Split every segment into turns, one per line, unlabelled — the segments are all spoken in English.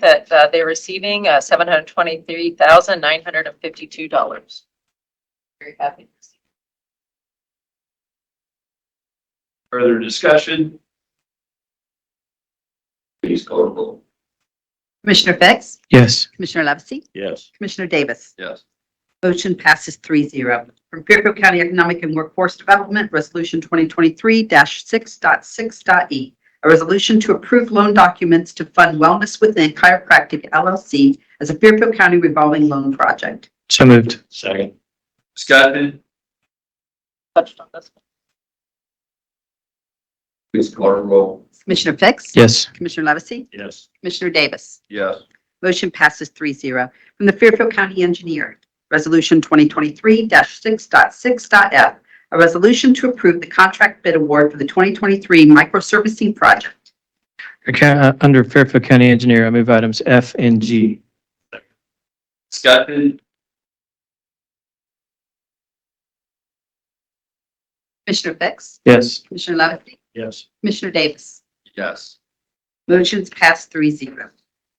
that uh, they're receiving uh, $723,952. Very happy.
Further discussion? Please call the roll.
Commissioner Fix?
Yes.
Commissioner Levesey?
Yes.
Commissioner Davis?
Yes.
Motion passes 3-0. From Fairfield County Economic and Workforce Development, Resolution 2023-6.6.e, E. a resolution to approve loan documents to fund Wellness Within Chiropractic LLC as a Fairfield County revolving loan project.
So moved.
Second. Discussion?
Touched on this.
Please call the roll.
Commissioner Fix?
Yes.
Commissioner Levesey?
Yes.
Commissioner Davis?
Yes.
Motion passes 3-0. From the Fairfield County Engineer, Resolution 2023-6.6.f, a resolution to approve the contract bid award for the 2023 microservicing project.
Okay, uh, Under Fairfield County Engineer, I move items F and G.
Discussion?
Commissioner Fix?
Yes.
Commissioner Levesey?
Yes.
Commissioner Davis?
Yes.
Motion's passed 3-0. From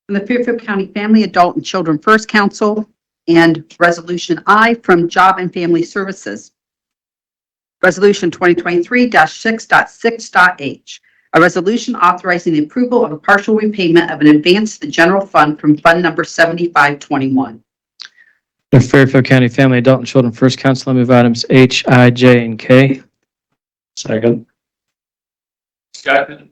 the Fairfield County Family, Adult, and Children First Council, and Resolution I from Job and Family Services. Resolution 2023-6.6.h, a resolution authorizing the approval of a partial repayment of an advance to the general fund from Fund Number 7521.
Under Fairfield County Family, Adult, and Children First Council, I move items H, I, J, and K. Second.
Discussion?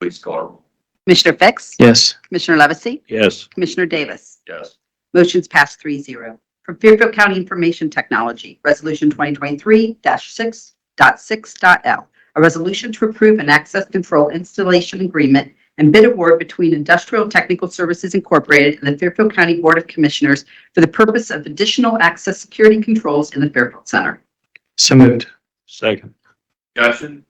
Please call the roll.
Commissioner Fix?
Yes.
Commissioner Levesey?
Yes.
Commissioner Davis?
Yes.
Motion's passed 3-0. From Fairfield County Information Technology, Resolution 2023-6.6.L, a resolution to approve an access control installation agreement and bid award between Industrial Technical Services Incorporated and the Fairfield County Board of Commissioners for the purpose of additional access security controls in the Fairfield Center.
So moved.
Second. Discussion?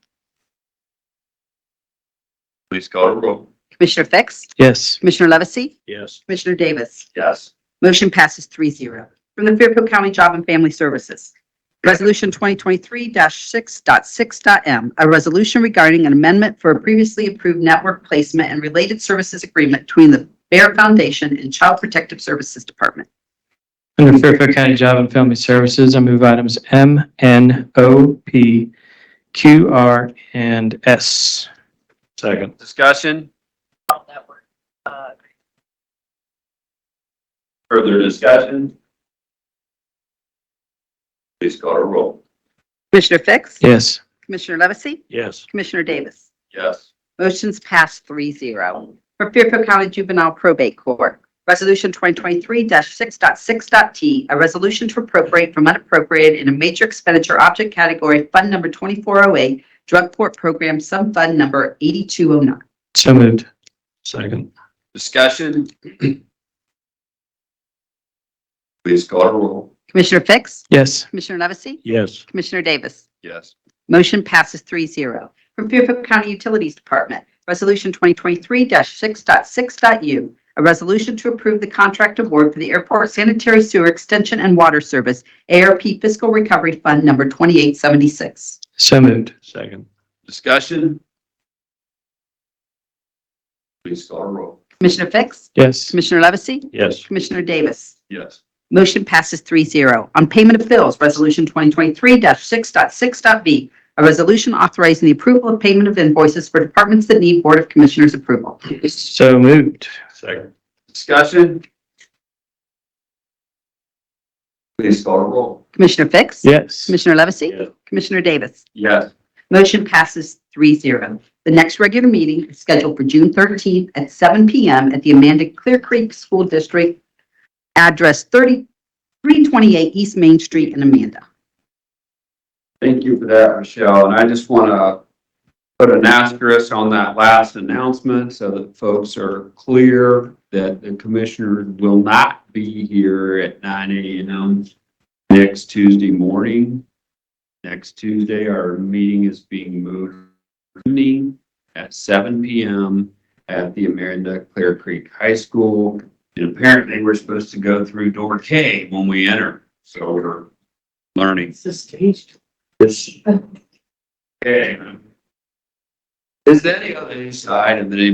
Please call the roll.
Commissioner Fix?
Yes.
Commissioner Levesey?
Yes.
Commissioner Davis?
Yes.
Motion passes 3-0. From the Fairfield County Job and Family Services, Resolution 2023-6.6.m, a resolution regarding an amendment for a previously approved network placement and related services agreement between the Bear Foundation and Child Protective Services Department.
Under Fairfield County Job and Family Services, I move items M, N, O, P, Q, R, and S.
Second. Discussion?
on that word. Uh,
Further discussion? Please call the roll.
Commissioner Fix?
Yes.
Commissioner Levesey?
Yes.
Commissioner Davis?
Yes.
Motion's passed 3-0. For Fairfield County Juvenile Probate Court, Resolution 2023-6.6.t, a resolution to appropriate from unappropriated in a major expenditure object category, Fund Number 2408, Drug Court Program, Sum Fund Number 8209.
So moved.
Second. Discussion? Please call the roll.
Commissioner Fix?
Yes.
Commissioner Levesey?
Yes.
Commissioner Davis?
Yes.
Motion passes 3-0. From Fairfield County Utilities Department, Resolution 2023-6.6.u, a resolution to approve the contract award for the Airport Sanitary Sewer Extension and Water Service, ARP Fiscal Recovery Fund Number 2876.
So moved.
Second. Discussion? Please call the roll.
Commissioner Fix?
Yes.
Commissioner Levesey?
Yes.
Commissioner Davis?
Yes.
Motion passes 3-0. On payment of bills, Resolution 2023-6.6.v, a resolution authorizing the approval of payment of invoices for departments that need Board of Commissioners approval.
So moved.
Second. Discussion? Please call the roll.
Commissioner Fix?
Yes.
Commissioner Levesey?
Yes.
Commissioner Davis?
Yes.
Motion passes 3-0. The next regular meeting is scheduled for June 13th at 7 PM at the Amanda Clear Creek School District, address 3328 East Main Street in Amanda.
Thank you for that, Michelle, and I just want to put an asterisk on that last announcement so that folks are clear that the commissioner will not be here at nine AM next Tuesday morning. Next Tuesday, our meeting is being moved evening at seven PM at the Amerinda Clear Creek High School. And apparently, we're supposed to go through door K when we enter, so we're learning. This. Okay. Is there any other side of anybody